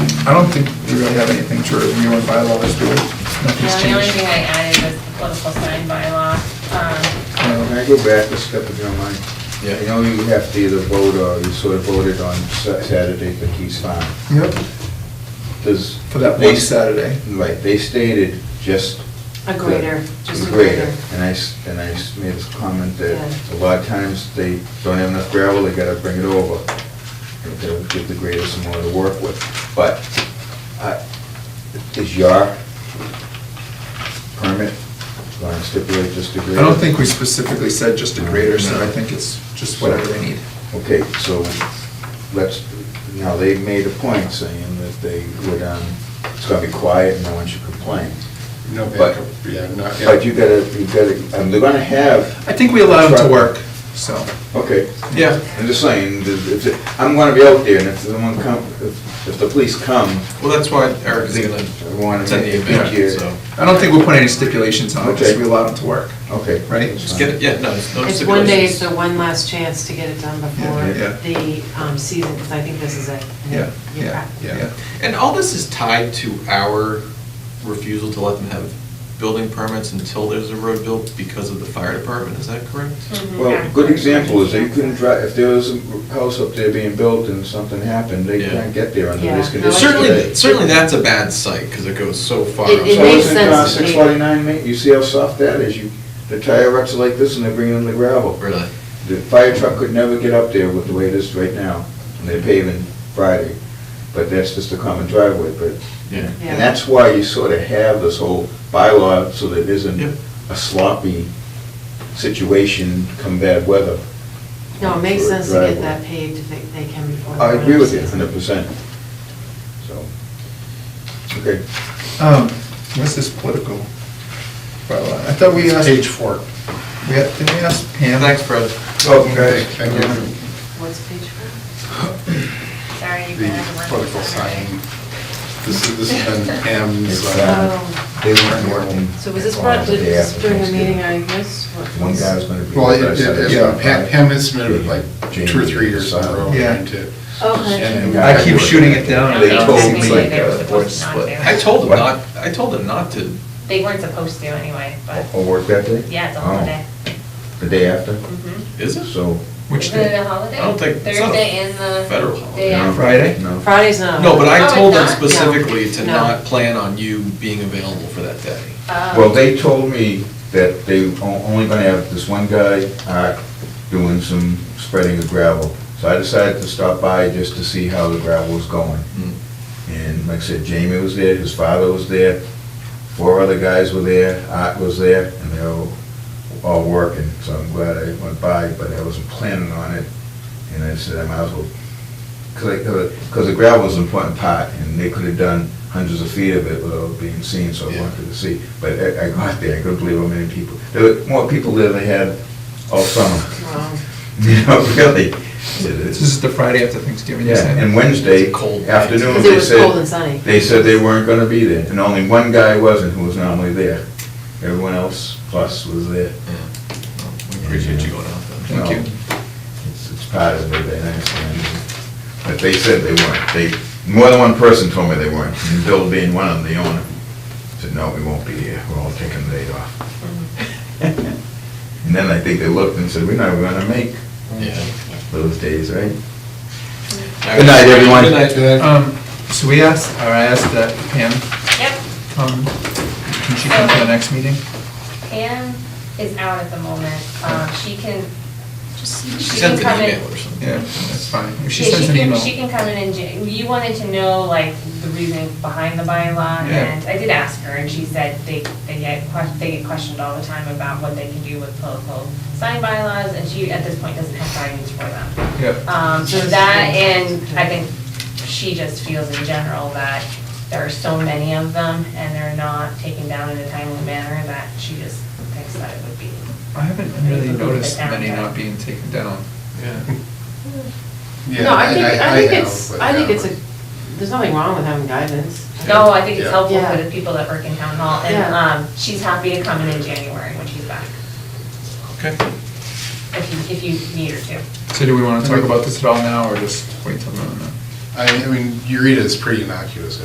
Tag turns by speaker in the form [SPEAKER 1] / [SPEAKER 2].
[SPEAKER 1] I don't think we really have anything to review in bylaws, do we? Nothing's
[SPEAKER 2] Uh, The only thing
[SPEAKER 1] changed.
[SPEAKER 2] I added was the political sign bylaw. Um,
[SPEAKER 1] Um,
[SPEAKER 3] Can I go back a step if you don't mind?
[SPEAKER 4] Yeah.
[SPEAKER 3] I know you have to either vote or you sort of voted on Sa- Saturday for Keys Farm.
[SPEAKER 1] Yep,
[SPEAKER 3] Does...
[SPEAKER 1] for that
[SPEAKER 3] they-
[SPEAKER 1] one Saturday.
[SPEAKER 3] Right, they stated just...
[SPEAKER 5] A greater,
[SPEAKER 3] the-
[SPEAKER 5] just a greater.
[SPEAKER 3] And I, s- and I s- made this comment that
[SPEAKER 5] Yeah.
[SPEAKER 3] a lot of times they don't have enough gravel, they gotta bring it over. And They'll give the grader some more to work with. But I- is your permit going to stipulate just a
[SPEAKER 1] I
[SPEAKER 3] grader?
[SPEAKER 1] don't think we specifically said just a grader, so I think it's just whatever they need.
[SPEAKER 3] Okay, so let's, now they made a point saying that they would, um, it's gonna be quiet and no one should complain.
[SPEAKER 6] No
[SPEAKER 3] But-
[SPEAKER 6] backup, yeah, not, yeah.
[SPEAKER 3] But you gotta, you gotta, um, they're gonna have,
[SPEAKER 1] I think we allow them to work, so,
[SPEAKER 3] okay,
[SPEAKER 1] yeah.
[SPEAKER 3] I'm just saying, if- if- I'm gonna be out there and if someone come, if if the police come,
[SPEAKER 4] Well, that's why Eric's
[SPEAKER 3] they
[SPEAKER 4] gonna
[SPEAKER 3] wanna
[SPEAKER 4] attend the
[SPEAKER 3] make make
[SPEAKER 4] event,
[SPEAKER 3] you.
[SPEAKER 4] so.
[SPEAKER 1] I don't think we'll put any stipulations on it, just
[SPEAKER 3] Okay.
[SPEAKER 1] we allow them to work.
[SPEAKER 3] Okay.
[SPEAKER 1] Right?
[SPEAKER 4] Just get it, yeah, no, it's no
[SPEAKER 5] It's one day, it's
[SPEAKER 4] stipulations.
[SPEAKER 5] the one last chance to get it done before
[SPEAKER 1] Yeah, yeah.
[SPEAKER 5] the um, season, because I think this is it.
[SPEAKER 1] Yeah, yeah,
[SPEAKER 5] Yeah.
[SPEAKER 1] yeah.
[SPEAKER 4] And all this is tied to our refusal to let them have building permits until there's a road built because of the fire department, is that correct?
[SPEAKER 2] Mhm.
[SPEAKER 3] Well, a good example is they couldn't drive, if there was a house up there being built and something happened, they
[SPEAKER 4] Yeah.
[SPEAKER 3] can't get there under
[SPEAKER 5] Yeah.
[SPEAKER 3] these
[SPEAKER 5] No, I-
[SPEAKER 3] conditions.
[SPEAKER 4] Certainly,
[SPEAKER 3] today.
[SPEAKER 4] certainly that's a bad site, because it goes so far.
[SPEAKER 5] It- it
[SPEAKER 3] So
[SPEAKER 5] makes
[SPEAKER 3] isn't, uh,
[SPEAKER 5] sense to me.
[SPEAKER 3] 649, mate, you see how soft that is? You, the tire ruts are like this and they're bringing in the gravel.
[SPEAKER 4] Really?
[SPEAKER 3] The fire truck could never get up there with the way it is right now, and they're paving Friday, but that's just a common driveway, but,
[SPEAKER 4] Yeah.
[SPEAKER 5] Yeah.
[SPEAKER 3] and that's why you sort of have this whole bylaw, so that it isn't
[SPEAKER 4] Yep.
[SPEAKER 3] a sloppy situation come bad weather.
[SPEAKER 5] No, it makes
[SPEAKER 3] for a
[SPEAKER 5] sense to get
[SPEAKER 3] driveway.
[SPEAKER 5] that paid if they they can before. the
[SPEAKER 3] I agree with you
[SPEAKER 5] season.
[SPEAKER 3] hundred percent, so, okay.
[SPEAKER 1] Um, what's this political bylaw? I thought we asked,
[SPEAKER 6] Page four.
[SPEAKER 1] we, had- didn't we ask Pam?
[SPEAKER 4] Thanks, Fred.
[SPEAKER 1] Okay.
[SPEAKER 6] Thank you.
[SPEAKER 5] What's page four?
[SPEAKER 2] Sorry, you
[SPEAKER 6] The
[SPEAKER 2] can have the one.
[SPEAKER 6] political sign. This is, this has been Pam's, uh,
[SPEAKER 5] Oh,
[SPEAKER 3] They weren't working.
[SPEAKER 5] So was this
[SPEAKER 3] on
[SPEAKER 5] brought,
[SPEAKER 3] the day
[SPEAKER 5] was this
[SPEAKER 3] after
[SPEAKER 5] during a
[SPEAKER 3] Thanksgiving.
[SPEAKER 5] meeting I missed? What
[SPEAKER 3] One
[SPEAKER 5] was-
[SPEAKER 3] guy was gonna be.
[SPEAKER 6] well, it- it-
[SPEAKER 3] Yeah.
[SPEAKER 6] it- Pam Pam has submitted like two or three years in a row.
[SPEAKER 1] Yeah.
[SPEAKER 6] and to-
[SPEAKER 5] Oh, Okay.
[SPEAKER 3] Yeah.
[SPEAKER 1] I keep shooting it down.
[SPEAKER 2] No,
[SPEAKER 3] They
[SPEAKER 2] no,
[SPEAKER 3] told me uh,
[SPEAKER 2] technically,
[SPEAKER 3] like
[SPEAKER 2] they were
[SPEAKER 3] a
[SPEAKER 2] uh, supposed to not
[SPEAKER 4] But
[SPEAKER 2] do
[SPEAKER 4] I
[SPEAKER 2] it.
[SPEAKER 4] told him
[SPEAKER 3] What?
[SPEAKER 4] not, I told him not to,
[SPEAKER 2] They weren't supposed to anyway, but,
[SPEAKER 3] Or work that day?
[SPEAKER 2] yeah, it's a
[SPEAKER 3] Oh,
[SPEAKER 2] holiday.
[SPEAKER 3] The day after,
[SPEAKER 2] Mhm.
[SPEAKER 4] is it?
[SPEAKER 3] so.
[SPEAKER 1] Which
[SPEAKER 2] Isn't it
[SPEAKER 1] day?
[SPEAKER 2] a holiday?
[SPEAKER 4] Mm-hmm. I don't think- it's not a
[SPEAKER 2] Thursday and the.
[SPEAKER 4] federal
[SPEAKER 2] day
[SPEAKER 4] holiday.
[SPEAKER 3] no,
[SPEAKER 2] after.
[SPEAKER 1] Friday?
[SPEAKER 3] No.
[SPEAKER 5] Fridays now.
[SPEAKER 4] No, but
[SPEAKER 2] Oh,
[SPEAKER 4] I
[SPEAKER 2] it's
[SPEAKER 4] told him
[SPEAKER 2] not? No.
[SPEAKER 4] specifically to
[SPEAKER 5] No.
[SPEAKER 4] not plan on you being available for that day.
[SPEAKER 2] Uh,
[SPEAKER 3] Well, they told me that they o- only gonna have this one guy, uh, doing some spreading of gravel. So I decided to stop by just to see how the gravel was going.
[SPEAKER 4] Mm.
[SPEAKER 3] And like I said, Jamie was there, his father was there, four other guys were there, Art was there, and they were all working. So I'm glad I went by, but I wasn't planning on it. And I said, I might as well, because, because the gravel was an important part, and they could have done hundreds of feet of it without being seen, so I
[SPEAKER 4] Yeah.
[SPEAKER 3] wanted to see. But I I got there, I couldn't believe how many people, there were more people there than they had all summer.
[SPEAKER 5] Wow.
[SPEAKER 3] You know, really.
[SPEAKER 1] This is the Friday after Thanksgiving, you
[SPEAKER 3] Yeah,
[SPEAKER 1] said?
[SPEAKER 3] and Wednesday
[SPEAKER 4] It's cold.
[SPEAKER 3] afternoon,
[SPEAKER 5] 'Cause it
[SPEAKER 3] they
[SPEAKER 5] was cold and sunny.
[SPEAKER 3] said, they said they weren't gonna be there, and only one guy wasn't, who was normally there. Everyone else plus was there.
[SPEAKER 4] Yeah. Well, We appreciate you going out then.
[SPEAKER 1] Thank
[SPEAKER 3] No,
[SPEAKER 1] you.
[SPEAKER 3] It's, it's part of it, I understand. But they said they weren't, they, more than one person told me they weren't, and Bill being one of them, the owner, said, no, we won't be here, we're all taking the day off.
[SPEAKER 5] Mm.
[SPEAKER 3] And then I think they looked and said, we're not gonna make
[SPEAKER 4] Yeah.
[SPEAKER 3] those days, right? Oh. Good night, everyone.
[SPEAKER 4] Good night.
[SPEAKER 6] Did I-
[SPEAKER 1] Um, so we asked, or I asked that Pam,
[SPEAKER 2] Yep,
[SPEAKER 1] um, can she come to the next meeting?
[SPEAKER 2] Pam is out at the moment. Um, She can, she
[SPEAKER 4] Send
[SPEAKER 2] can
[SPEAKER 4] an
[SPEAKER 2] come in.
[SPEAKER 4] email or something.
[SPEAKER 1] Yeah, that's fine. If she
[SPEAKER 2] Yeah,
[SPEAKER 1] sends an
[SPEAKER 2] can-
[SPEAKER 1] email.
[SPEAKER 2] She can come in and, ju- you wanted to know, like, the reasoning behind the bylaw,
[SPEAKER 1] Yeah.
[SPEAKER 2] and I did ask her, and she said they, they get, que- they get questioned all the time about what they can do with political sign bylaws, and she, at this point, doesn't have guidance for them.
[SPEAKER 1] Yep.
[SPEAKER 2] Um, so that, and I think she just feels in general that there are so many of them, and they're not taken down in a timely manner, that she just thinks that it would be.
[SPEAKER 1] I haven't really
[SPEAKER 2] Remove the
[SPEAKER 1] noticed many
[SPEAKER 2] downtown.
[SPEAKER 1] not being taken down.
[SPEAKER 4] Yeah.
[SPEAKER 6] yeah,
[SPEAKER 5] No, I think, I think
[SPEAKER 6] have,
[SPEAKER 5] it's,
[SPEAKER 6] but,
[SPEAKER 5] I think
[SPEAKER 6] uh,
[SPEAKER 5] it's a, there's nothing wrong with having guidance.
[SPEAKER 2] No, I think it's
[SPEAKER 6] Yeah.
[SPEAKER 2] helpful for
[SPEAKER 5] Yeah.
[SPEAKER 2] the people that work in town hall, and,
[SPEAKER 5] Yeah.
[SPEAKER 2] um, she's happy to come in in January when she's back,
[SPEAKER 4] Okay.
[SPEAKER 2] if you, if you need her to.
[SPEAKER 1] So do we want to talk about this at all now, or just wait till then?
[SPEAKER 6] I, I mean, you read it, it's pretty innocuous,